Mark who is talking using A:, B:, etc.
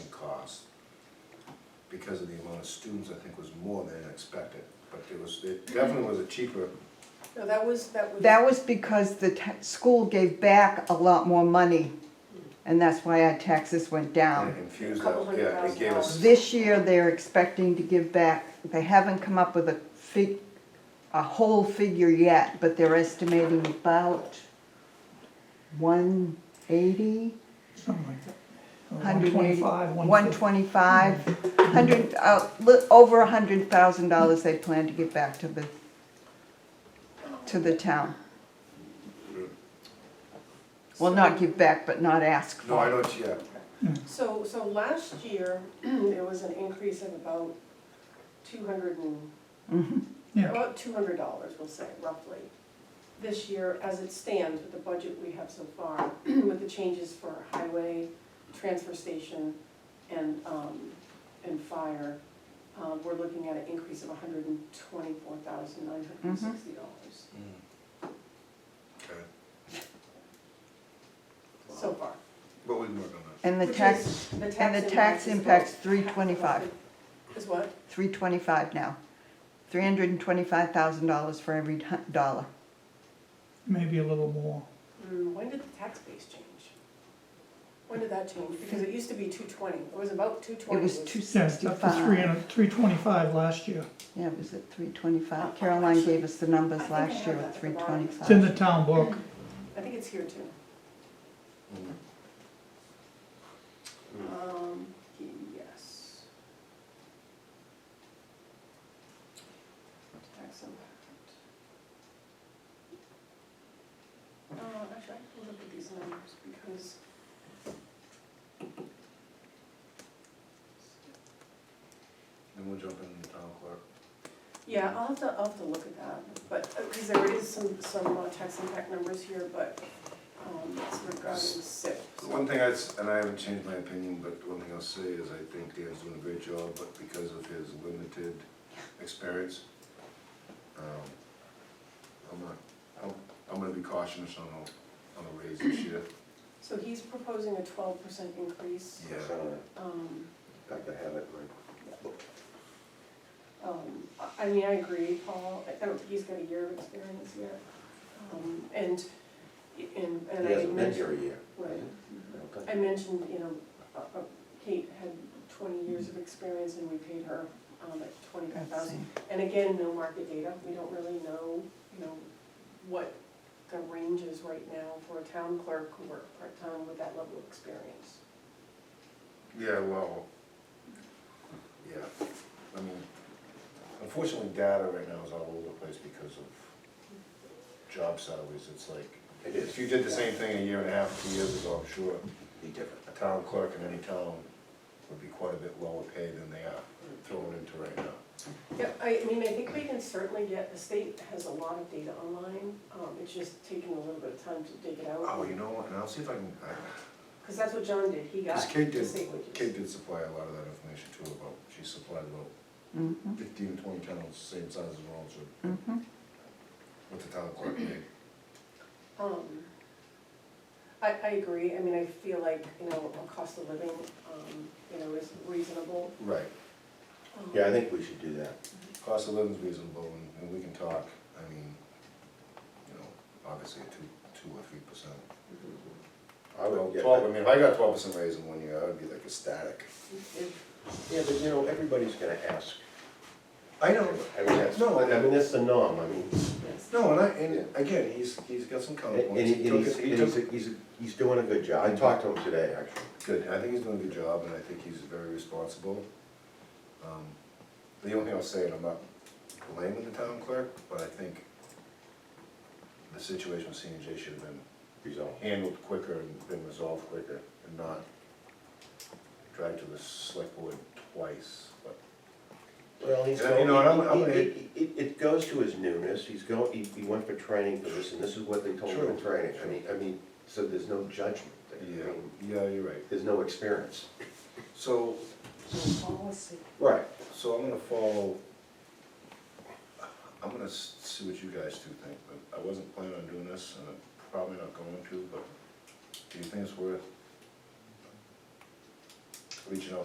A: because of the amount of students, I think was more than expected. But there was, it definitely was a cheaper,
B: No, that was, that was.
C: That was because the ta- school gave back a lot more money, and that's why our taxes went
A: and
C: down.
A: infused
B: Couple
A: that,
B: hundred
A: yeah, it
B: thousand
A: gave us.
C: This year, they're expecting to give back, they haven't come up with a fig, a whole figure yet, but they're estimating about one eighty,
D: something like that. Uh,
C: hundred eighty.
D: 125, 150.
C: 125, 100, uh, li- over a hundred thousand dollars they plan to give back to the, to the town. Well, not give back, but not ask for.
A: No, I don't, yeah,
B: So, so last year, there was an increase of about two hundred and,
C: Mhm.
D: Yeah,
B: about two hundred dollars, we'll say roughly. This year, as it stands with the budget we have so far, with the changes for highway, transfer station, and, um, and fire, um, we're looking at an increase of hundred and twenty-four thousand nine hundred and
C: Mm-hmm.
B: sixty dollars
A: okay,
B: so far.
A: but we can work on that.
C: And the
B: Which
C: tax,
B: is- the
C: and the tax impact's
B: impacts
C: three twenty-five,
B: Is what?
C: three twenty-five now. Three hundred and twenty-five thousand dollars for every hu- dollar.
D: maybe a little more.
B: Mm, When did the tax base change? When did that change? Because it used to be two twenty, it was about two twenty.
C: It was two
D: Yeah, it's up to three
C: sixty-five.
D: hundred, three twenty-five last year.
C: Yeah, it was at three twenty-five. Caroline gave us the
B: Oh, I
C: numbers
B: think I
C: last
B: have
C: year
B: that
C: at
B: at the
C: three
B: bottom.
C: twenty-five.
D: It's in the town book.
B: I think it's here too.
A: Mm.
B: Um, yes. Tax impact. Uh, actually, I can look at these numbers because.
A: Then we'll jump in the town clerk.
B: Yeah, I'll have to, I'll have to look at that, but, because there is some, some uh, tax impact numbers here, but, um, it's regarding SIP.
A: The One thing I, s- and I haven't changed my opinion, but one thing I'll say is I think Dan's doing a great job, but because of his limited experience, um, I'm gonna, I'm, I'm gonna be cautious on a, on a raise this year.
B: So he's proposing a twelve percent increase,
A: Yeah,
B: um,
A: I could have it right.
B: um, I- I mean, I agree, Paul, I don't think he's got a year of experience yet. Um, and, and, and
E: He
B: I
E: hasn't been
B: mentioned,
E: here a year.
B: right,
E: Okay.
B: I mentioned, you know, uh, uh, Kate had twenty years of experience and we paid her, um, at twenty-five
C: That's
B: thousand.
C: it.
B: And again, no market data, we don't really know, you know, what the range is right now for a town clerk who worked part-time with that level of experience.
A: Yeah, well, yeah, I mean, unfortunately, data right now is all over the place because of job salaries, it's like,
E: It is.
A: if you did the same thing a year and a half, two years ago, I'm sure
E: Be different.
A: a town clerk in any town would be quite a bit lower paid than they are thrown into right now.
B: Yeah, I I mean, I think we can certainly get, the state has a lot of data online, um, it's just taking a little bit of time to dig it out.
A: Oh, you know what, and I'll see if I can, I,
B: Because that's what John did, he got
A: cause Kate
B: the
A: did,
B: state
A: Kate
B: wages.
A: did supply a lot of that information too about, she supplied about
C: Mhm,
A: fifteen, twenty towns, same size as Rollinsford,
C: mhm.
A: with the town clerk made.
B: Um, I, I agree, I mean, I feel like, you know, a cost of living, um, you know, is reasonable.
A: Right,
B: um,
E: Yeah, I think we should do that.
A: cost of living's reasonable and, and we can talk, I mean, you know, obviously a two, two or three percent. I
E: Well,
A: would,
E: yeah,
A: twelve, I
E: but-
A: mean, if I got twelve percent raise in one year, I would be like ecstatic.
E: Yeah, but you know, everybody's gonna ask.
A: I
E: I mean, that's,
A: No, I-
E: I mean, that's the norm, I mean,
B: Yes.
A: No, and I, and again, he's, he's got some
E: and
A: common
E: and
A: points. He
E: he- and
A: took
E: he's,
A: it- he
E: and he's,
A: took,
E: he's, he's doing a good job. I talked to him today, actually.
A: good, I think he's doing a good job, and I think he's very responsible. Um, The only thing I'll say, and I'm not blaming the town clerk, but I think the situation with CNJ should have been
E: He's on.
A: handled quicker and been resolved quicker, and not dragged to the select board twice, but
E: Well, he's
A: Yeah, you know, and I'm- I'm-
E: going, it, it, it goes to his newness, he's going, he, he went for training for this, and this is what they told him in
A: True.
E: training. I mean, I mean, so there's no judgment there. I
A: Yeah,
E: mean,
A: yeah, you're right.
E: There's no experience.
A: So,
B: So Policy.
E: Right.
A: So I'm gonna follow, I'm gonna s- see what you guys two think, but I wasn't planning on doing this, and I'm probably not going to, but do you think it's worth reaching out